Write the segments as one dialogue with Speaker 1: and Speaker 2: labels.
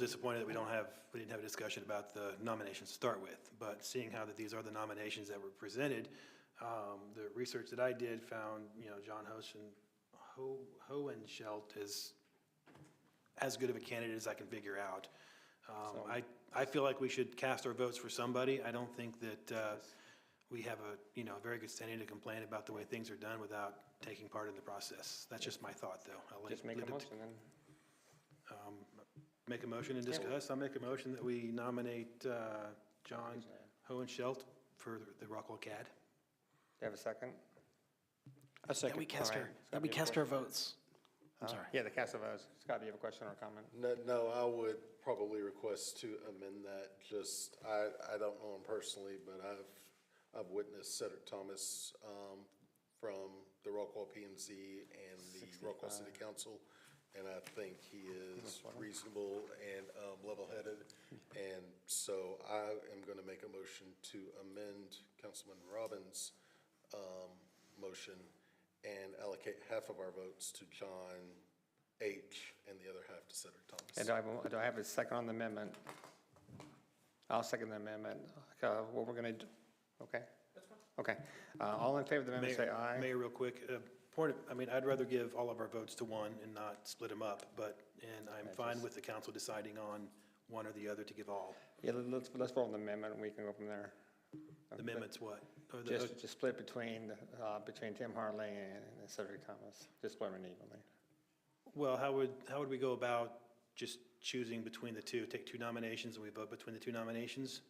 Speaker 1: disappointed that we don't have, we didn't have a discussion about the nominations to start with. But seeing how that these are the nominations that were presented, um, the research that I did found, you know, John Hosen, Ho, Hohenschelt is as good of a candidate as I can figure out. Um, I, I feel like we should cast our votes for somebody. I don't think that, uh, we have a, you know, a very good standing to complain about the way things are done without taking part in the process. That's just my thought, though. I'll let-
Speaker 2: Just make
Speaker 1: leave it
Speaker 2: a
Speaker 1: to-
Speaker 2: motion then.
Speaker 1: Make a motion and discuss. I'll make a motion that we nominate uh, John Hohenschelt for the the Rockwell CAD.
Speaker 2: Do you have a second?
Speaker 3: A second.
Speaker 4: That we cast
Speaker 2: All
Speaker 4: our,
Speaker 2: right.
Speaker 4: that we cast our votes. I'm sorry.
Speaker 2: Yeah, the cast of votes. Scott, do you have a question or a comment?
Speaker 5: No, no, I would probably request to amend that, just, I, I don't know him personally, but I've, I've witnessed Cedric Thomas, um, from the Rockwall PMZ and the Rockwall City Council, and I think he is reasonable and, um, level-headed, and so I am gonna make a motion to amend Councilman Robbins' um, motion and allocate half of our votes to John H. and the other half to Cedric
Speaker 2: And uh,
Speaker 5: Thomas.
Speaker 2: do I, have a- do I have a second on the amendment? I'll second the amendment. Uh, What we're going to, okay? That's fine. Okay. Uh, All in favor of the amendment, say
Speaker 1: Mayor-
Speaker 2: aye.
Speaker 1: Mayor, real quick, uh, point, of- I mean, I'd rather give all of our votes to one and not split them up, but, and I'm fine with the council deciding on one or the other to give all.
Speaker 2: Yeah, let- let's, let's vote on the amendment, and we can go from there.
Speaker 1: The Amendments what? Or the- uh,
Speaker 2: Just, just split between, uh, between Tim Hartley and Cedric Thomas. Just split them evenly.
Speaker 1: Well, how would, how would we go about just choosing between the two? Take two nominations and we vote between the two nominations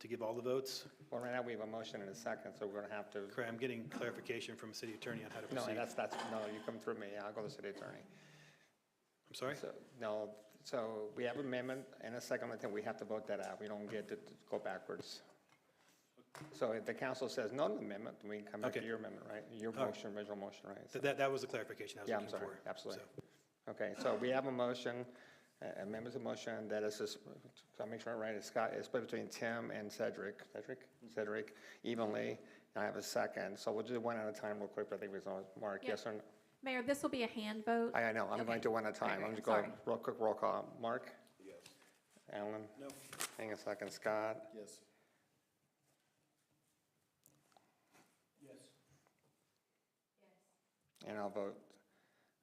Speaker 1: to give all the votes?
Speaker 2: Well, right now, we have a motion and a second, so we're going to have to.
Speaker 1: Correct, I'm getting clarification from city attorney on how to
Speaker 2: No,
Speaker 1: proceed.
Speaker 2: that's, that's, no, you come through me. I'll go to the city attorney.
Speaker 1: I'm sorry?
Speaker 2: So, no, so we have amendment and a second, I think we have to vote that out. We don't get to go backwards. So if the council says no to the amendment, then we can come back to
Speaker 1: Okay.
Speaker 2: your amendment, right? Your
Speaker 1: All right.
Speaker 2: motion, original motion, right? So-
Speaker 1: Th- That, that was the clarification I was
Speaker 2: Yeah, I'm
Speaker 1: looking for.
Speaker 2: sorry, absolutely.
Speaker 1: So,
Speaker 2: Okay, so we have a motion, uh, amendment to motion that is, just- so I make sure I'm right, it's Scott, it's split between Tim and Cedric, Cedric?
Speaker 1: Mm-hmm.
Speaker 2: Cedric evenly, and I have a second. So we'll do one at a time real quick, but I think we saw Mark,
Speaker 6: Yeah.
Speaker 2: yes or no?
Speaker 6: Mayor, this will be a hand vote.
Speaker 2: I, I know, I'm going
Speaker 6: Okay.
Speaker 2: to one at a time.
Speaker 6: All
Speaker 2: I'm
Speaker 6: right,
Speaker 2: just going,
Speaker 6: sorry.
Speaker 2: real quick roll call. Mark?
Speaker 5: Yes.
Speaker 2: Alan? No. Hang on a second, Scott?
Speaker 5: Yes.
Speaker 2: And I'll vote,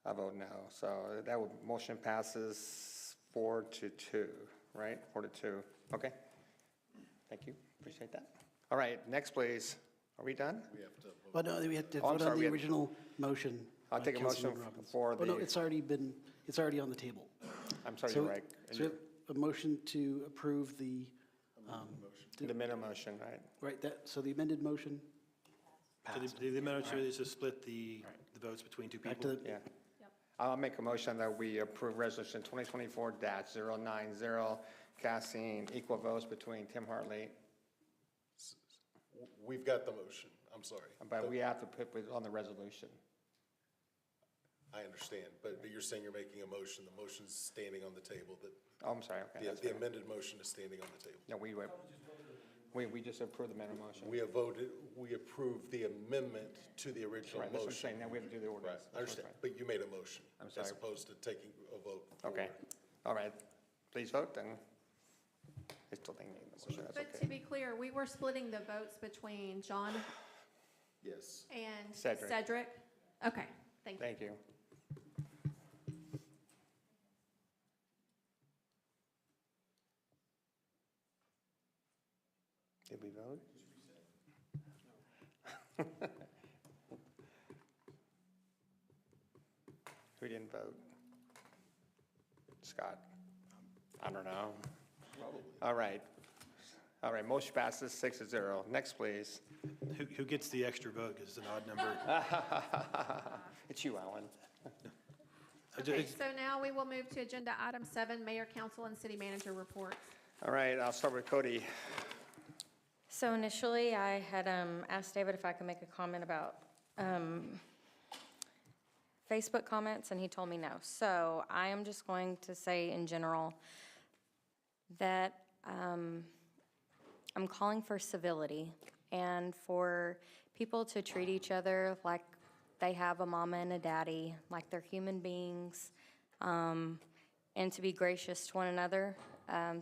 Speaker 2: I vote no. So that would, motion passes four to two, right? Four to two, okay. Thank you, appreciate that. All right, next please. Are we done?
Speaker 5: We have to vote.
Speaker 4: But no, we have to
Speaker 2: Oh, I'm
Speaker 4: vote
Speaker 2: sorry,
Speaker 4: on
Speaker 2: we
Speaker 4: the
Speaker 2: had-
Speaker 4: original motion.
Speaker 2: I'll
Speaker 4: by
Speaker 2: take a motion
Speaker 4: Councilman
Speaker 2: f-
Speaker 4: Robbins.
Speaker 2: for
Speaker 4: Oh, no,
Speaker 2: the-
Speaker 4: it's already been, it's already on the table.
Speaker 2: I'm sorry,
Speaker 4: So-
Speaker 2: you're right.
Speaker 4: So we have a motion to approve the, um,
Speaker 2: The minimum motion, right?
Speaker 4: right, that, so the amended motion,
Speaker 1: so the, the amendment is to split the, the votes between two
Speaker 4: back to
Speaker 1: people.
Speaker 4: the,
Speaker 2: Yeah.
Speaker 6: Yep.
Speaker 2: I'll make a motion that we approve resolution 2024-090, casting equal votes between Tim Hartley
Speaker 5: W- We've got the motion. I'm sorry.
Speaker 2: But we have to put it on the resolution.
Speaker 5: I understand, but, but you're saying you're making a motion. The motion's standing on the table, that,
Speaker 2: Oh, I'm sorry, okay.
Speaker 5: the-
Speaker 2: that's
Speaker 5: the
Speaker 2: fine.
Speaker 5: amended motion is standing on the table.
Speaker 2: No, we, were- we, we just approved the amendment motion.
Speaker 5: We have voted, we approved the amendment to the original
Speaker 2: Right, that's
Speaker 5: motion.
Speaker 2: what I'm saying, now we have to do the
Speaker 5: Right,
Speaker 2: ordinance.
Speaker 5: I understand, but you made a motion.
Speaker 2: I'm sorry.
Speaker 5: As opposed to taking a vote. for-
Speaker 2: Okay, all right, please vote then. I still think we need the motion, that's
Speaker 6: But to
Speaker 2: okay.
Speaker 6: be clear, we were splitting the votes between John
Speaker 5: Yes.
Speaker 6: and
Speaker 2: Cedric.
Speaker 6: Cedric. Okay, thank you.
Speaker 2: Thank you. Did we vote? Who didn't vote? Scott? I don't know. All right. All right, motion passes six to zero. Next, please.
Speaker 1: Who, who gets the extra vote, because it's an odd number.
Speaker 2: It's you, Alan.
Speaker 1: I ju-
Speaker 6: Okay,
Speaker 1: it's-
Speaker 6: so now we will move to agenda item seven, mayor, council, and city manager reports.
Speaker 2: All right, I'll start with Cody.
Speaker 7: So initially, I had um, asked David if I could make a comment about um, Facebook comments, and he told me no. So I am just going to say in general that um, I'm calling for civility and for people to treat each other like they have a mama and a daddy, like they're human beings, um, and to be gracious to one another. Um,